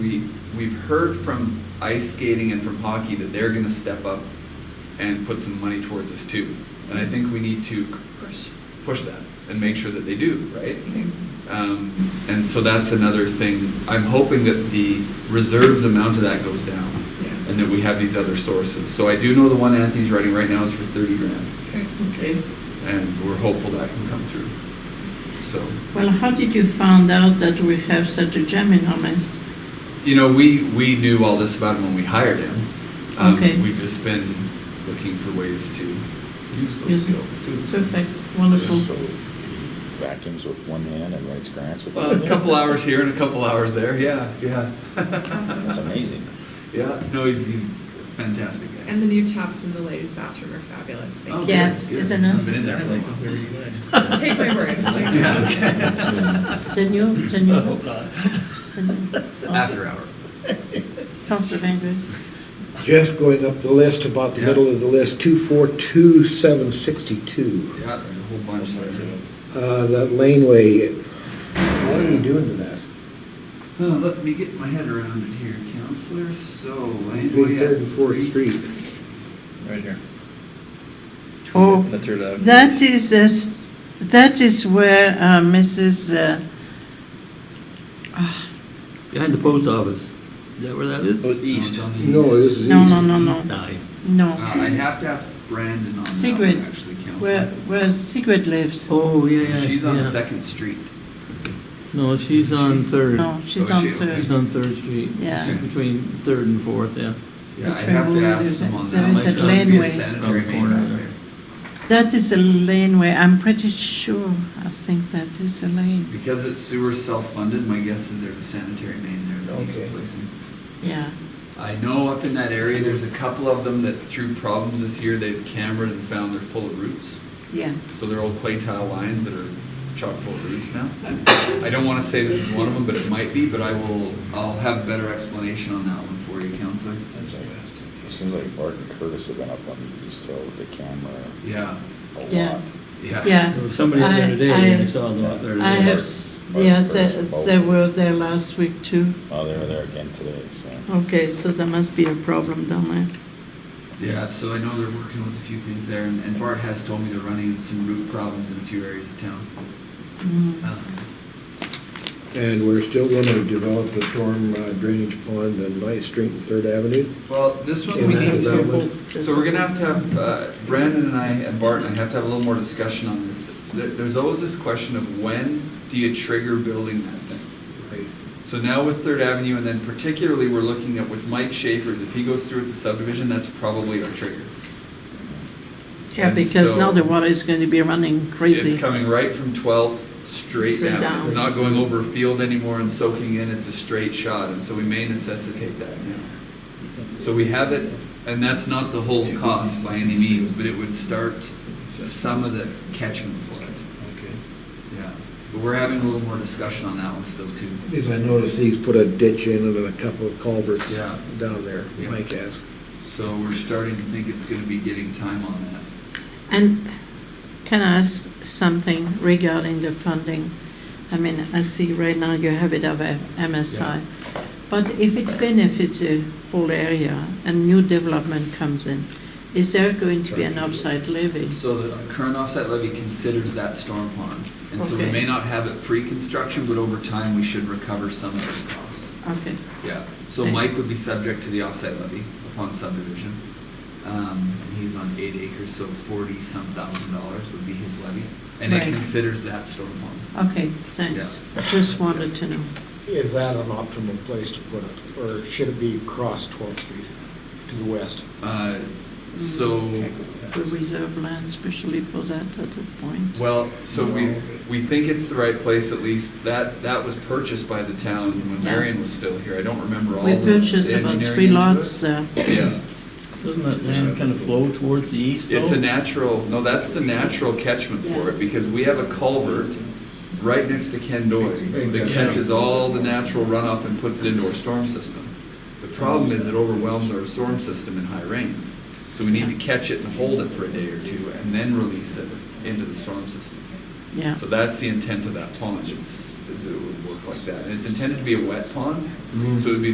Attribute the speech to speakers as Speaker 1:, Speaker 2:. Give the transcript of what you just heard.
Speaker 1: We, we've heard from ice skating and from hockey that they're gonna step up and put some money towards us too. And I think we need to push that and make sure that they do, right? Um, and so that's another thing. I'm hoping that the reserves amount of that goes down and that we have these other sources. So I do know the one Anthony's writing right now is for thirty grand
Speaker 2: Okay.
Speaker 1: and we're hopeful that can come through. So,
Speaker 2: Well, how did you find out that we have such a gem in our midst?
Speaker 1: you know, we, we knew all this about him when we hired him. Um,
Speaker 2: Okay.
Speaker 1: We've just been looking for ways to use those
Speaker 2: Use them.
Speaker 1: skills too. so.
Speaker 2: Perfect, wonderful.
Speaker 3: So he Vacuums with one hand and writes grants with the
Speaker 1: Well,
Speaker 3: other.
Speaker 1: a couple hours here and a couple hours there, yeah, yeah.
Speaker 4: Awesome.
Speaker 3: That's amazing.
Speaker 1: Yeah, no, he's, he's a fantastic guy.
Speaker 4: And the new taps in the ladies' bathroom are fabulous.
Speaker 1: Oh,
Speaker 4: Thank
Speaker 1: good,
Speaker 4: you.
Speaker 2: Yes,
Speaker 1: good.
Speaker 2: isn't it?
Speaker 1: I've been in there for like
Speaker 4: Take my word.
Speaker 1: Yeah,
Speaker 2: The new, the new,
Speaker 1: Oh,
Speaker 2: the
Speaker 1: okay.
Speaker 2: new.
Speaker 1: After hours.
Speaker 2: Councillor Bainbridge.
Speaker 5: Just going up the list, about the
Speaker 1: Yeah.
Speaker 5: middle of the list, 242762,
Speaker 1: Yeah, there's a whole bunch there.
Speaker 5: Uh, that laneway. What are you doing to that?
Speaker 1: Uh, let me get my head around it here, counselor, so.
Speaker 5: Between Third and Fourth Street.
Speaker 6: Right here.
Speaker 2: Oh,
Speaker 6: The third avenue.
Speaker 2: that is, uh, s- that is where uh, Mrs., uh, ah,
Speaker 7: Behind the post office. Is that where that is?
Speaker 6: Oh, east.
Speaker 5: No, this is east.
Speaker 2: no, no, no,
Speaker 7: East
Speaker 2: no,
Speaker 7: side.
Speaker 1: Uh,
Speaker 2: no.
Speaker 1: I'd have to ask Brandon on that
Speaker 2: Sigrid,
Speaker 1: one, actually,
Speaker 2: Where,
Speaker 1: counselor.
Speaker 2: where Sigrid lives.
Speaker 7: Oh, yeah, yeah.
Speaker 1: She's on
Speaker 7: yeah.
Speaker 1: Second Street.
Speaker 7: No, she's on Third.
Speaker 2: No, she's
Speaker 1: Oh,
Speaker 2: on
Speaker 1: she-
Speaker 2: third.
Speaker 7: She's on Third Street.
Speaker 2: Yeah.
Speaker 7: Between Third and Fourth, yeah.
Speaker 1: Yeah, I'd
Speaker 2: Okay,
Speaker 1: have to
Speaker 2: well,
Speaker 1: ask
Speaker 2: there's
Speaker 1: them
Speaker 2: a-
Speaker 1: on
Speaker 2: there
Speaker 1: that.
Speaker 2: is
Speaker 1: Might
Speaker 2: a
Speaker 1: just be
Speaker 2: laneway.
Speaker 1: sanitary
Speaker 7: Oh,
Speaker 1: main out
Speaker 7: corner.
Speaker 1: there.
Speaker 2: That is a laneway, I'm pretty sure, I think that is a lane,
Speaker 1: Because it's sewer self-funded, my guess is there's a sanitary main there that needs
Speaker 5: Okay.
Speaker 1: replacing.
Speaker 2: yeah.
Speaker 1: I know up in that area, there's a couple of them that through problems this year, they've cambered and found they're full of roots.
Speaker 2: Yeah.
Speaker 1: So they're old clay tile lines that are chock full of roots now. I don't want to say this is one of them, but it might be, but I will, I'll have better explanation on that one for you, counselor.
Speaker 3: Seems like- It seems like Bart and Curtis have been up on East Hill with the camera
Speaker 1: Yeah,
Speaker 3: a
Speaker 2: Yeah.
Speaker 3: lot.
Speaker 1: yeah.
Speaker 2: Yeah.
Speaker 7: There was somebody there
Speaker 2: I-
Speaker 7: today,
Speaker 2: I-
Speaker 7: and I saw them out there.
Speaker 2: I
Speaker 7: today.
Speaker 2: have, s- yeah, they, they were there last week too.
Speaker 3: Oh, they were there again today, so.
Speaker 2: Okay, so there must be a problem down there.
Speaker 1: Yeah, so I know they're working with a few things there, and and Bart has told me they're running into some root problems in a few areas of town.
Speaker 2: Mm.
Speaker 1: Um,
Speaker 5: And we're still going to develop the storm uh, drainage pond on Ninth Street and Third Avenue.
Speaker 1: Well, this one
Speaker 5: In
Speaker 1: we
Speaker 5: that
Speaker 1: need to,
Speaker 5: development.
Speaker 1: so we're gonna have to have, uh, Brandon and I and Bart and I have to have a little more discussion on this. There- There's always this question of when do you trigger building that thing? So now with Third Avenue, and then particularly we're looking at with Mike Schaefer's, if he goes through with the subdivision, that's probably our trigger.
Speaker 2: Yeah,
Speaker 1: And
Speaker 2: because now
Speaker 1: so-
Speaker 2: the water is going to be running
Speaker 1: It's
Speaker 2: crazy.
Speaker 1: coming right from 12th straight
Speaker 2: Straight
Speaker 1: down.
Speaker 2: down.
Speaker 1: It's not going over a field anymore and soaking in, it's a straight shot, and so we may necessitate that now. So we have it, and that's not the whole cost by any means, but it would start some of the catchment for it.
Speaker 5: Okay.
Speaker 1: Yeah, but we're having a little more discussion on that one still too.
Speaker 5: Because I noticed he's put a ditch in and a couple of culverts
Speaker 1: Yeah.
Speaker 5: down there,
Speaker 1: Yeah.
Speaker 5: Mike has.
Speaker 1: So we're starting to think it's gonna be getting time on that.
Speaker 2: And can I ask something regarding the funding? I mean, I see right now you have it of a MSI. But if it benefits a whole area and new development comes in, is there going to be an offsite levy?
Speaker 1: So the current offset levy considers that storm pond, and so we
Speaker 2: Okay.
Speaker 1: may not have it pre-construction, but over time, we should recover some of those costs.
Speaker 2: Okay,
Speaker 1: Yeah, so
Speaker 2: Okay.
Speaker 1: Mike would be subject to the offset levy upon subdivision. Um, and he's on eight acres, so forty-some thousand dollars would be his levy. And it
Speaker 2: Right.
Speaker 1: considers that storm pond.
Speaker 2: okay, thanks. Just wanted to know.
Speaker 8: Is that an optimal place to put it, or should it be across 12th Street to the west?
Speaker 1: Uh,
Speaker 2: Mm-hmm.
Speaker 1: so,
Speaker 2: We reserve land especially for that at that point.
Speaker 1: well, so we, we think it's the right place at least. That, that was purchased by the town when
Speaker 2: Yeah.
Speaker 1: Marion was still here. I don't remember all
Speaker 2: We
Speaker 1: the
Speaker 2: purchased about
Speaker 1: engineering
Speaker 2: three
Speaker 1: into it.
Speaker 2: lots there.
Speaker 1: Yeah.
Speaker 7: Doesn't that land kind of flow towards the east, though?
Speaker 1: It's a natural, no, that's the natural catchment for it, because we have a culvert right next to Ken Doig that
Speaker 5: Exactly.
Speaker 1: catches all the natural runoff and puts it into our storm system. The problem is it overwhelms our storm system in high rains. So we need to catch it and hold it for a day or two and then release it into the storm system.
Speaker 2: Yeah,
Speaker 1: So that's the intent of that pond, it's, is it would work like that. And it's intended to be a wet pond, so it would be